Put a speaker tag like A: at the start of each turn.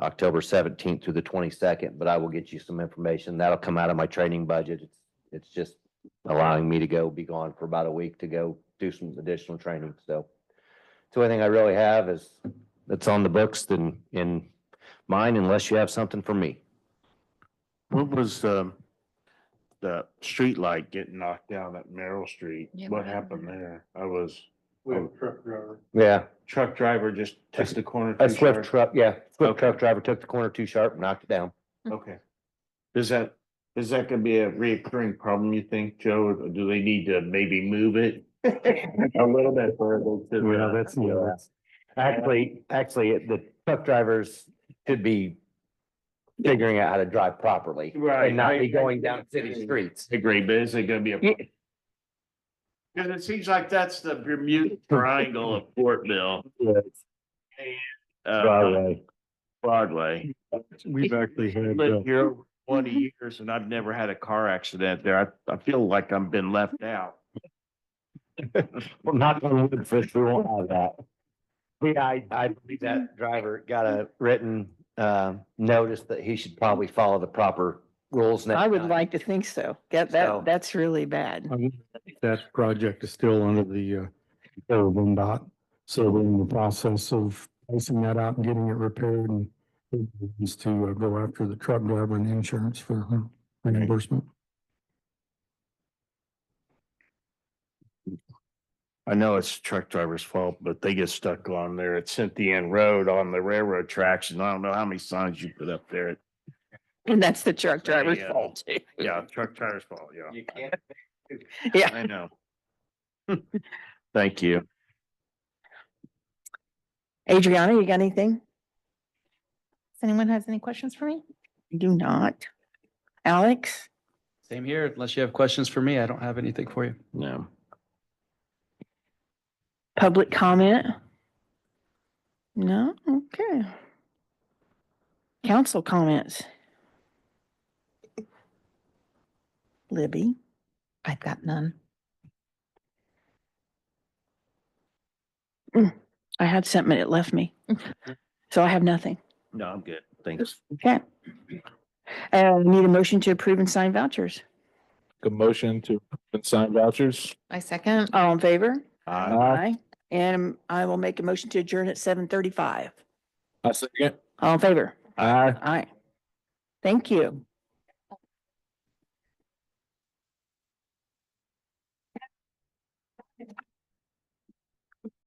A: October seventeenth through the twenty-second, but I will get you some information. That'll come out of my training budget. It's, it's just allowing me to go be gone for about a week to go do some additional training, so. It's the only thing I really have is, that's on the books than in mine unless you have something for me.
B: What was, um, the street light getting knocked down at Merrill Street?
C: Yeah,
B: What
C: what
B: happened
C: happened
B: there? I was,
D: We have a truck driver.
A: Yeah,
B: truck driver just took the corner.
A: a
B: too
A: Swift
B: sharp?
A: truck, yeah, Swift
B: Okay.
A: truck driver took the corner too sharp, knocked it down.
B: Okay. Is that, is that gonna be a reoccurring problem, you think, Joe? Or Do they need to maybe move it? A little bit further to
D: Well,
B: the- uh,
D: that's new.
A: Actually, actually, it- the truck drivers should be figuring out how to drive properly.
B: Right,
A: And not
B: I-
A: be
B: I-
A: going down city streets.
B: Agree, but is it gonna be a?
A: Yeah.
B: Cause it seems like that's the Bermuda Triangle of Portville, uh, Broadway.
D: We've actually had, uh,
B: lived here over twenty years and I've never had a car accident there. I, I feel like I've been left out.
A: Well, knock on wood, Fritz, we won't have that. Yeah, I, I believe that driver got a written, uh, notice that he should probably follow the proper rules. next
C: I would
A: time.
C: like to think so. That,
A: So-
C: that, that's really bad.
D: I wonder if that project is still under the, uh, control of MDOT. So we're in the process of pricing that out and getting it repaired and is to uh, go after the truck driver and the insurance for uh, reimbursement.
B: I know it's truck driver's fault, but they get stuck on there at Cynthia Ann Road on the railroad tracks and I don't know how many signs you put up there.
C: And that's the uh, truck
B: There you
C: driver's
B: go.
C: fault too.
B: Yeah, truck driver's fault, yeah,
A: You can't
C: Yeah.
B: I know. Thank you.
C: Adriana, you got anything?
E: If anyone has any questions for me?
C: You do not. Alex?
F: Same here. Unless you have questions for me, I don't have anything for you.
B: No.
C: Public comment? No, okay. Council comments? Libby,
E: I've got none.
C: I had something and it left me. So I have nothing.
B: No, I'm good, thanks.
C: Okay. Uh, need a motion to approve and sign vouchers.
G: a motion to approve and sign vouchers.
E: I second.
C: All in favor?
B: Uh,
C: Aye. And I will make a motion to adjourn at seven thirty-five.
G: I second.
C: All in favor?
G: Aye.
C: Aye. Thank you.